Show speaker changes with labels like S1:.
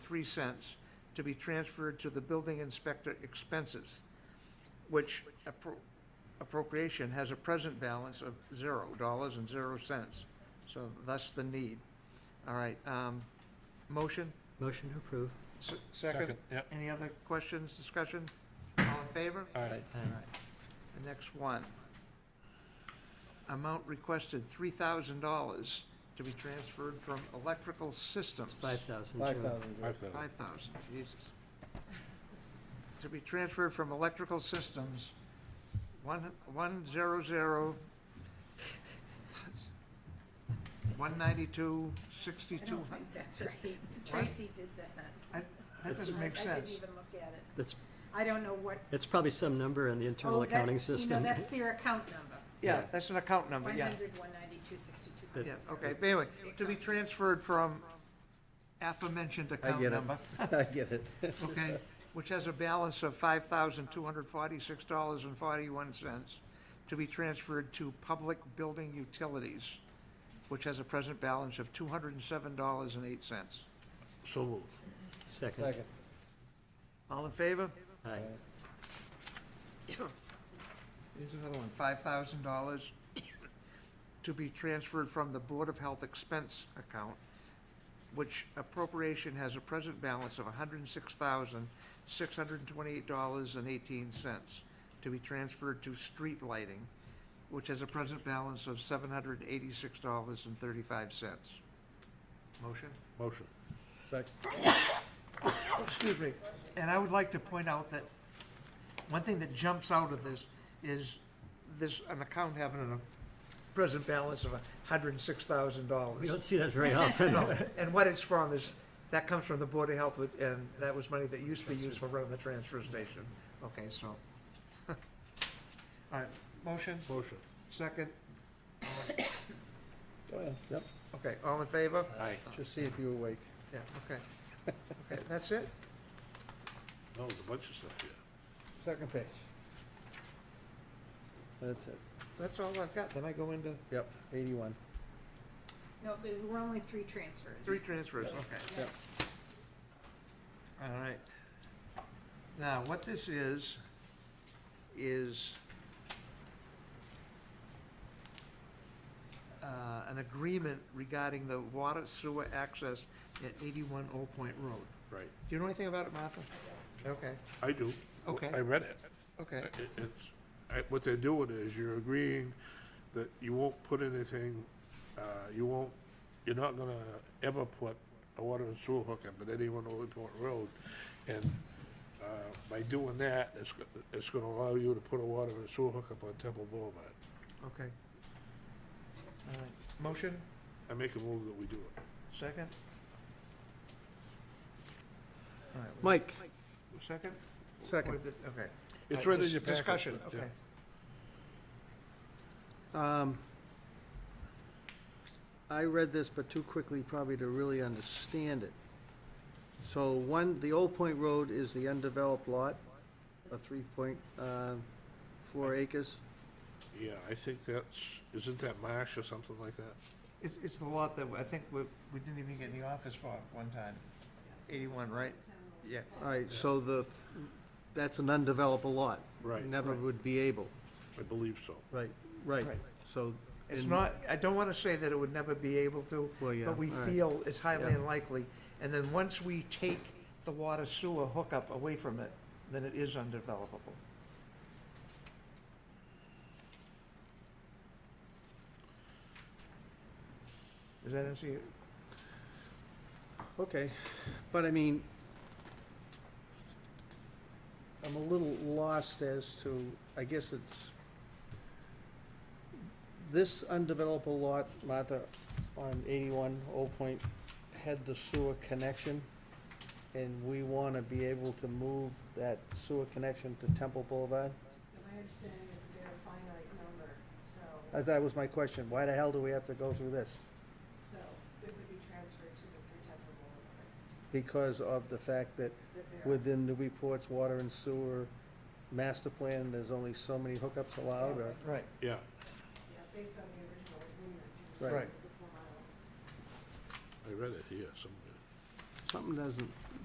S1: twenty-three cents to be transferred to the building inspector expenses, which appro- appropriation has a present balance of zero dollars and zero cents. So thus the need. All right, um, motion,
S2: Motion to approve.
S1: S- second?
S3: Yep.
S1: Any other questions, discussion? All in favor?
S3: All right.
S1: All right. The next one. Amount requested, three thousand dollars to be transferred from electrical systems.
S2: It's five thousand.
S4: Five thousand, Joe.
S3: Five thousand.
S1: Five thousand, Jesus. To be transferred from electrical systems, one, one zero zero, one ninety-two,
S5: I
S1: sixty-two
S5: don't
S1: hundred.
S5: think that's right. Tracy did that.
S1: That doesn't make
S5: I- I
S1: sense.
S5: didn't even look at it.
S2: That's,
S5: I don't know what.
S2: it's probably some number in the internal
S5: oh, that-
S2: accounting
S5: You
S2: system. Um,
S5: know, that's their account number.
S1: Yeah, that's an account number,
S5: One
S1: yeah.
S5: hundred, one ninety-two, sixty-two.
S2: But-
S1: Yeah, okay, but anyway, to be transferred from aforementioned account
S4: get it.
S1: number,
S4: I get it.
S1: okay, which has a balance of five thousand two hundred forty-six dollars and forty-one cents, to be transferred to public building utilities, which has a present balance of two hundred and seven dollars and eight cents.
S3: So moved.
S2: Second.
S4: Second.
S1: All in favor?
S2: Aye.
S1: Here's another one, five thousand dollars to be transferred from the Board of Health expense account, which appropriation has a present balance of hundred and six thousand, six hundred and twenty-eight dollars and eighteen cents to be transferred to street lighting, which has a present balance of seven hundred and eighty-six dollars and thirty-five cents. Motion?
S3: Motion.
S4: Sec-
S1: Oh, Excuse me. And I would like to point out that one thing that jumps out of this is this, an account having a present balance of hundred and six thousand
S2: We don't
S1: dollars.
S2: see that very often.
S1: And what it's from is, that comes from the Board of Health, and that was money that used to be used for running the transfer station. Okay, so. All right, motion,
S3: Motion.
S1: second,
S4: Oh, yeah, Yep,
S1: okay, all in favor?
S3: Aye.
S4: just see if you're awake.
S1: Yeah, okay. Okay, that's it?
S3: No, there's a bunch of stuff here.
S4: Second page. That's it.
S1: That's all I've got, then I go into
S4: Yep, eighty-one.
S5: No, there were only three transfers.
S1: three transfers, okay.
S4: Yep.
S1: All right. Now, what this is, is uh, an agreement regarding the water sewer access at 81 Old Point Road.
S3: Right.
S1: Do you know anything about it, Martha? Okay,
S3: I do.
S1: Okay.
S3: I read it.
S1: okay,
S3: It- It's, I- what they're doing is you're agreeing that you won't put anything, uh, you won't, you're not gonna ever put a water and sewer hookup at anyone on Old Port Road. And, uh, by doing that, it's, go- it's gonna allow you to put a water and sewer hookup on Temple Boulevard.
S1: okay. All right. Motion,
S3: I make a move that we do it.
S1: second? All right, we-
S4: Mike,
S1: Second?
S4: second.
S1: Or did- Okay.
S3: It's
S1: All
S3: right in
S1: dis-
S3: your packet,
S1: Discussion,
S3: but, yeah.
S1: okay.
S4: Um, I read this, but too quickly probably to really understand it. So one, the Old Point Road is the undeveloped lot of three point, uh, four acres.
S3: Yeah, I think that's, isn't that marsh or something like that?
S1: It's, it's the lot that I think we, we didn't even get in the office for one time. Eighty-one, right? Yeah.
S4: All right, so the, that's an undeveloped lot.
S3: Right.
S4: Never would be able,
S3: I believe so.
S4: right, right,
S1: Right.
S4: so.
S1: It's
S4: in-
S1: not, I don't wanna say that it would never be able to,
S4: Well, yeah,
S1: but we
S4: all right.
S1: feel it's highly
S4: Yeah.
S1: unlikely. And then once we take the water sewer hookup away from it, then it is undevelopable. Does that answer you?
S4: Okay, but I mean, I'm a little lost as to, I guess it's, this undeveloped lot, Martha, on eighty-one Old Point, had the sewer connection, and we want to be able to move that sewer connection to Temple Boulevard?
S5: My understanding is that they're a finite number, so,
S2: Uh,
S4: That that was my question, why the hell do we have to go through this?
S5: so it would be transferred to the three temple board.
S4: Because of the fact that within the reports, water and sewer master plan, there's only so many hookups allowed, or?
S1: Right.
S3: Yeah,
S5: Yeah, based on the original agreement.
S4: Right.
S1: Right.
S3: I read it here somewhere.
S4: Something doesn't